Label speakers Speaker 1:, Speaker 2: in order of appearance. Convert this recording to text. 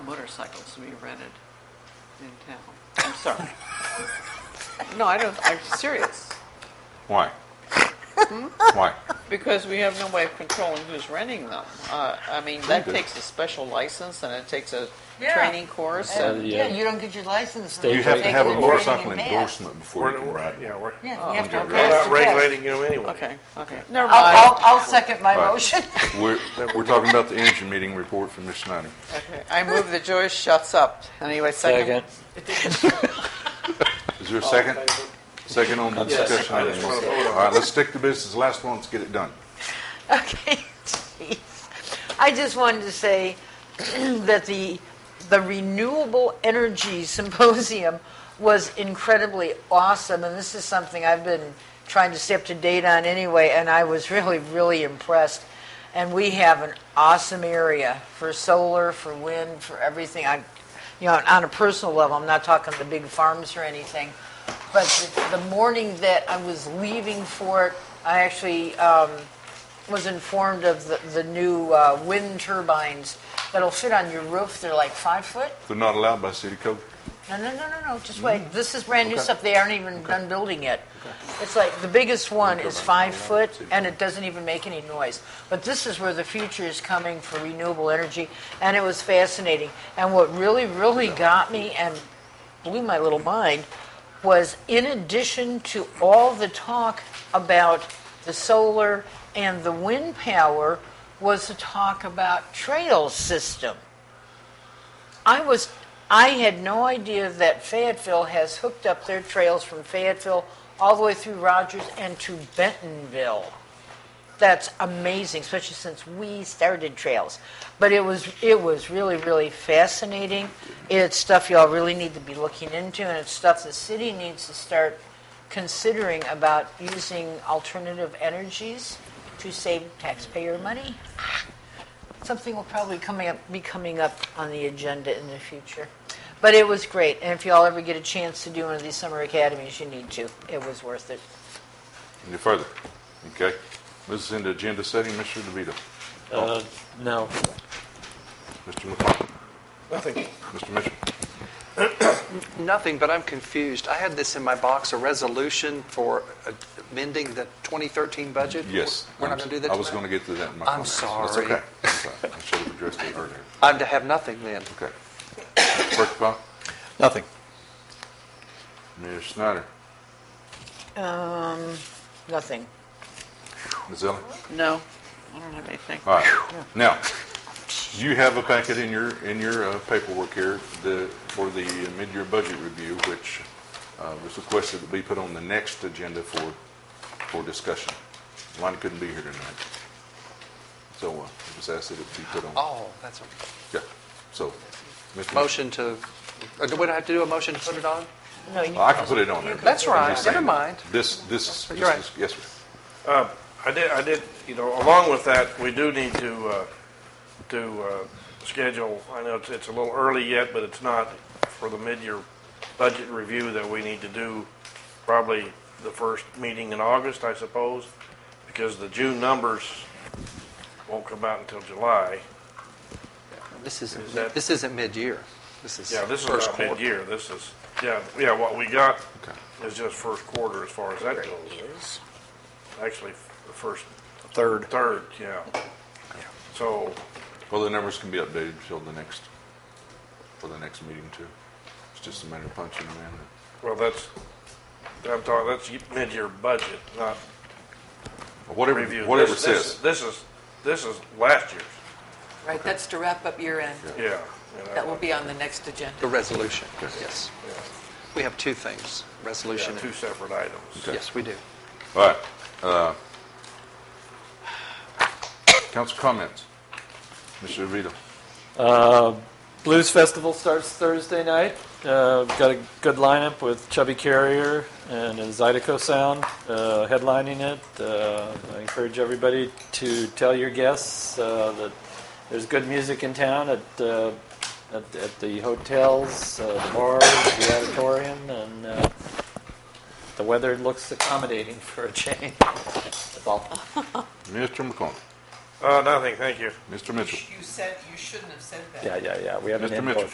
Speaker 1: motorcycles we rented in town. I'm sorry. No, I don't, I'm serious,
Speaker 2: Why? Why?
Speaker 1: because we have no way of controlling who's renting them. Uh, I mean, that
Speaker 2: Okay.
Speaker 1: takes a special license and it takes a
Speaker 3: Yeah.
Speaker 1: training course
Speaker 2: So,
Speaker 1: and,
Speaker 2: the,
Speaker 3: Yeah,
Speaker 2: uh,
Speaker 3: you don't get your license. until
Speaker 2: You have to
Speaker 3: take
Speaker 2: have
Speaker 3: the
Speaker 2: a
Speaker 3: training
Speaker 2: motorcycle
Speaker 3: in advance.
Speaker 2: endorsement before
Speaker 4: We're,
Speaker 2: you can ride.
Speaker 4: yeah, we're,
Speaker 3: Oh, Yeah, you have to
Speaker 2: Under-
Speaker 3: have
Speaker 4: we're
Speaker 3: a
Speaker 4: not
Speaker 3: test.
Speaker 4: regulating them anyway.
Speaker 1: okay, okay, never
Speaker 3: I'll,
Speaker 1: mind.
Speaker 3: I'll, I'll second my
Speaker 2: Right.
Speaker 3: motion.
Speaker 2: We're, we're talking about the engine meeting report from Ms. Snyder.
Speaker 1: Okay. I move that Joyce shuts up. Anyway, second.
Speaker 5: Second.
Speaker 2: Is there a second? Second on the discussion
Speaker 4: Oh, I just
Speaker 2: item. All
Speaker 4: wanna vote on it.
Speaker 2: right, let's stick to business. Last one, let's get it done.
Speaker 3: Okay, jeez. I just wanted to say that the, the Renewable Energy Symposium was incredibly awesome, and this is something I've been trying to stay up to date on anyway, and I was really, really impressed. And we have an awesome area for solar, for wind, for everything. I, you know, on a personal level, I'm not talking the big farms or anything, but the, the morning that I was leaving for it, I actually, um, was informed of the, the new uh, wind turbines that'll fit on your roof. They're like five foot.
Speaker 2: They're not allowed by city code.
Speaker 3: No, no, no, no, no. Just wait. This is brand new
Speaker 2: Mm-hmm. Okay.
Speaker 3: stuff. They aren't even done building yet. It's like the biggest one
Speaker 2: Wind
Speaker 3: is
Speaker 2: turbines,
Speaker 3: five
Speaker 2: no, no,
Speaker 3: foot,
Speaker 2: it's-
Speaker 3: and it doesn't even make any noise. But this is where the future is coming for renewable energy, and it was fascinating. And what really, really got me and blew my little mind was in addition to all the talk about the solar and the wind power was the talk about trail system. I was, I had no idea that Fayetteville has hooked up their trails from Fayetteville all the way through Rogers and to Bentonville. That's amazing, especially since we started trails. But it was, it was really, really fascinating. It's stuff y'all really need to be looking into, and it's stuff the city needs to start considering about using alternative energies to save taxpayer money. Something will probably coming up, be coming up on the agenda in the future. But it was great, and if y'all ever get a chance to do one of these summer academies, you need to. It was worth it.
Speaker 2: Any further? Okay. This is into agenda setting. Mr. DeVito.
Speaker 5: Uh, no.
Speaker 2: Mr. McClung.
Speaker 4: Nothing.
Speaker 2: Mr. Mitchell.
Speaker 6: Nothing, but I'm confused. I had this in my box, a resolution for amending the 2013 budget?
Speaker 2: Yes.
Speaker 6: We're not going to do that
Speaker 2: I was going to get to that in my
Speaker 6: I'm
Speaker 2: comments.
Speaker 6: sorry.
Speaker 2: That's okay. That's okay. I should have addressed it earlier.
Speaker 6: I'm to have nothing then?
Speaker 2: Okay. Clerk Powell.
Speaker 7: Nothing.
Speaker 2: Ms. Snyder.
Speaker 3: Um, nothing.
Speaker 2: Ms. Ellen.
Speaker 1: No, I don't have anything.
Speaker 2: All right. Now, you have a packet in your, in your uh, paperwork here, the, for the mid-year budget review, which uh, was requested to be put on the next agenda for, for discussion. Lonnie couldn't be here tonight. So uh, it was asked that it be put on.
Speaker 6: Oh, that's a
Speaker 2: Yeah, so. Mr.
Speaker 6: motion to, uh, do we have to do a motion to put it on?
Speaker 3: No, you,
Speaker 2: I can put it on there. but
Speaker 6: That's
Speaker 2: I'm
Speaker 6: right.
Speaker 2: just saying,
Speaker 6: Never mind.
Speaker 2: This, this, this,
Speaker 6: You're right.
Speaker 2: this- yes, sir.
Speaker 4: I did, I did, you know, along with that, we do need to, uh, to, uh, schedule, I know it's, it's a little early yet, but it's not for the mid-year budget review that we need to do probably the first meeting in August, I suppose, because the June numbers won't come out until July.
Speaker 6: This isn't,
Speaker 4: Is that-
Speaker 6: this isn't mid-year. This is
Speaker 4: Yeah, this is
Speaker 6: first
Speaker 4: not
Speaker 6: quarter.
Speaker 4: mid-year, this is, yeah, yeah, what we got
Speaker 2: Okay.
Speaker 4: is just first quarter as far as that goes. Actually, the first
Speaker 7: Third.
Speaker 4: Third, yeah. So,
Speaker 2: Well, the numbers can be updated till the next, for the next meeting too. It's just a matter of punching them in.
Speaker 4: well, that's, I'm talking, that's mid-year budget, not
Speaker 2: Whatever,
Speaker 4: review.
Speaker 2: whatever it
Speaker 4: This- this-
Speaker 2: says.
Speaker 4: This is, this is last year's,
Speaker 8: Right, that's to wrap up year end.
Speaker 4: yeah. uh, you know,
Speaker 8: That will be on the next agenda.
Speaker 6: The resolution, yes.
Speaker 4: yeah,
Speaker 6: We have two things,
Speaker 4: yeah,
Speaker 6: resolution.
Speaker 4: Two
Speaker 6: and-
Speaker 4: separate items.
Speaker 6: Yes, we do.
Speaker 2: All right. uh, Council comments? Mr. DeVito?
Speaker 5: Uh, Blues Festival starts Thursday night. Uh, we've got a good lineup with Chubby Carrier and a Zydeco Sound uh, headlining it. Uh, I encourage everybody to tell your guests uh, that there's good music in town at uh, at, at the hotels, uh, the bars, the auditorium, and uh, the weather looks accommodating for a change. That's all.
Speaker 2: Mr. McClung?
Speaker 9: Uh, nothing, thank you.
Speaker 5: Mr. Mitchell.
Speaker 4: You said, you shouldn't have said that.
Speaker 1: Yeah, yeah, yeah, we have an
Speaker 5: Mr.
Speaker 1: input.
Speaker 5: Mitchell.